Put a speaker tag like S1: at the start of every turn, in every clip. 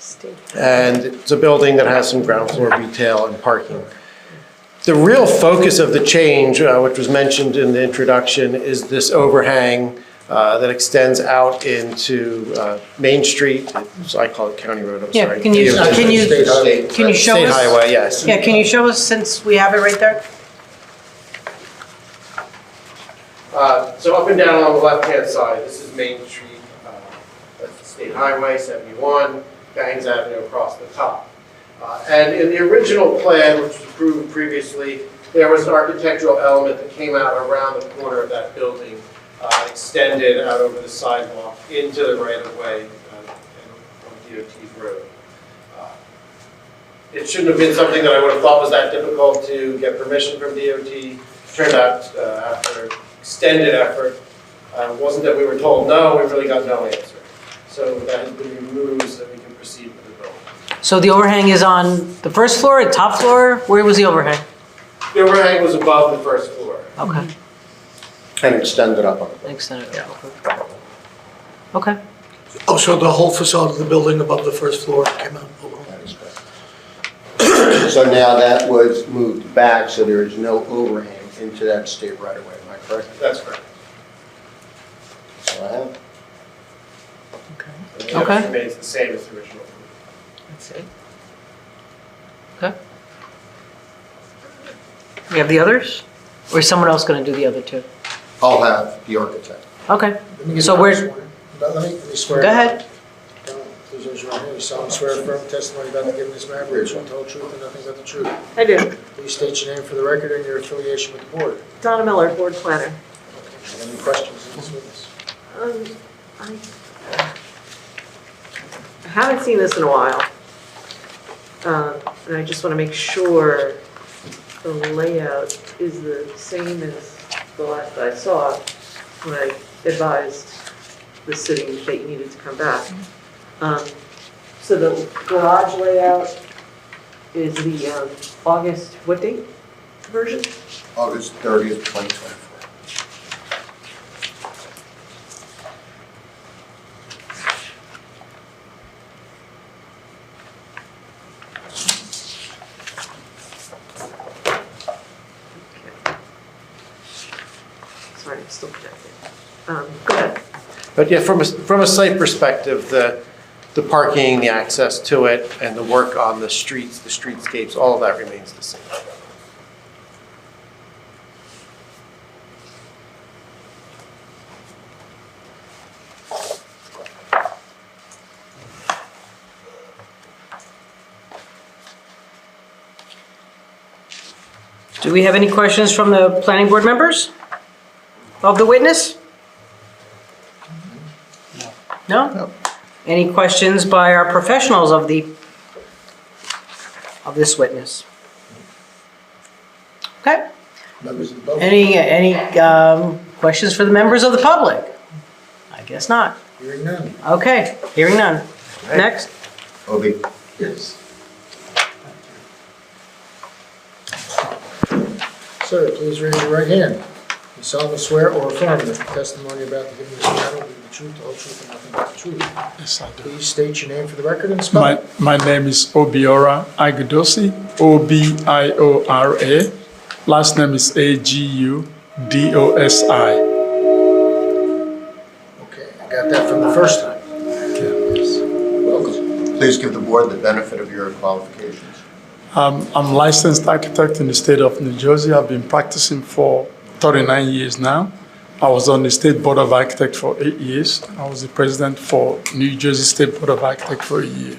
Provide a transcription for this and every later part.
S1: Steve.
S2: and it's a building that has some ground floor retail and parking. The real focus of the change, uh, which was mentioned in the introduction, is this overhang uh, that extends out into uh, Main Street, so I call it County Road, I'm
S1: Yeah,
S2: sorry.
S1: can you,
S2: DOT.
S1: can you,
S3: State highway.
S1: can you show us?
S2: State highway, yes.
S1: Yeah, can you show us since we have it right there?
S2: Uh, So up and down on the left-hand side, this is Main Street, uh, that's the State Highway 71, Bangs Avenue across the top. Uh, And in the original plan, which was approved previously, there was an architectural element that came out around the corner of that building, uh, extended out over the sidewalk into the right-of-way uh, and on DOT's road. Uh, It shouldn't have been something that I would have thought was that difficult to get permission from DOT. Turned out, uh, after extended effort. Uh, It wasn't that we were told no, we really got no answer. So that has been removed so that we can proceed with the building.
S1: So the overhang is on the first floor, the top floor? Where was the overhang?
S2: The overhang was above the first floor.
S1: Okay,
S3: And extend it up on the
S1: thanks, Senator. Okay,
S4: Oh, so the whole facade of the building above the first floor came out? Oh, well.
S3: So now that was moved back, so there is no overhang into that state right away, am I correct?
S2: That's correct.
S3: So I have-
S2: And the other
S1: Okay.
S2: Remains the same as the original.
S1: that's it. Okay. We have the others? Or is someone else gonna do the other two?
S3: I'll have the architect.
S1: Okay,
S5: Let me get
S1: So
S5: another
S1: we're-
S5: swear. Let let me, let me swear.
S1: go ahead.
S5: Please raise your right hand. You solemnly swear affirm testimony about the giving this matter, which will tell the truth and nothing but the truth.
S6: I do.
S5: Please state your name for the record and your affiliation with the board.
S6: Donna Miller, board planner.
S5: Any questions of this witness?
S6: Um, I I haven't seen this in a while. Um, And I just want to make sure the layout is the same as the last I saw when I advised the city that you needed to come back. Um, So the garage layout is the um, August, what date version?
S3: August 30th, 2024.
S6: Sorry, I'm still projecting. Um, Go ahead.
S2: But yeah, from a, from a site perspective, the, the parking, the access to it, and the work on the streets, the streetscapes, all of that remains the same.
S1: Do we have any questions from the planning board members of the witness? No? Any questions by our professionals of the, of this witness? Okay,
S5: Members of the public,
S1: any, any um, questions for the members of the public? I guess not.
S5: hearing none.
S1: Okay, hearing none. Next.
S3: Obi?
S5: Yes. Sir, please raise your right hand. You solemnly swear or affirm that the testimony about the giving this matter will be the truth, the whole truth, and nothing but the truth.
S7: Yes, I do.
S5: Please state your name for the record and spell
S7: My,
S5: it.
S7: my name is Obiora Agudosy, O B I O R A. Last name is A G U D O S I.
S5: Okay, I got that from the first time. Welcome.
S3: Please give the board the benefit of your qualifications.
S7: Um, I'm licensed architect in the state of New Jersey. I've been practicing for 39 years now. I was on the State Board of Architects for eight years. I was the president for New Jersey State Board of Architects for a year.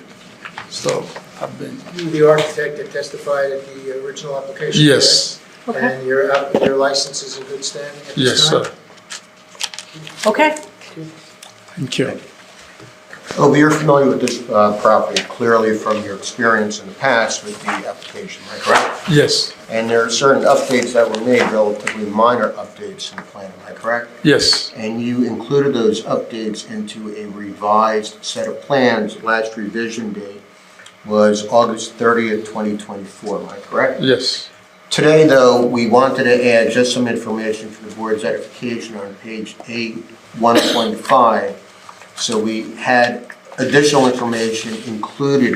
S7: So I've been,
S5: You, the architect that testified at the original application?
S7: yes,
S5: correct? And your, app- your license is in good standing at this
S7: yes,
S5: time?
S7: sir.
S1: Okay,
S7: Thank you.
S3: Obi, you're familiar with this uh, property clearly from your experience in the past with the application, am I correct?
S7: Yes,
S3: And there are certain updates that were made, relatively minor updates in the plan, am I correct?
S7: yes,
S3: And you included those updates into a revised set of plans. Last revision date was August 30th, 2024, am I correct?
S7: yes,
S3: Today, though, we wanted to add just some information for the board's edification on page eight, one point five. So we had additional information included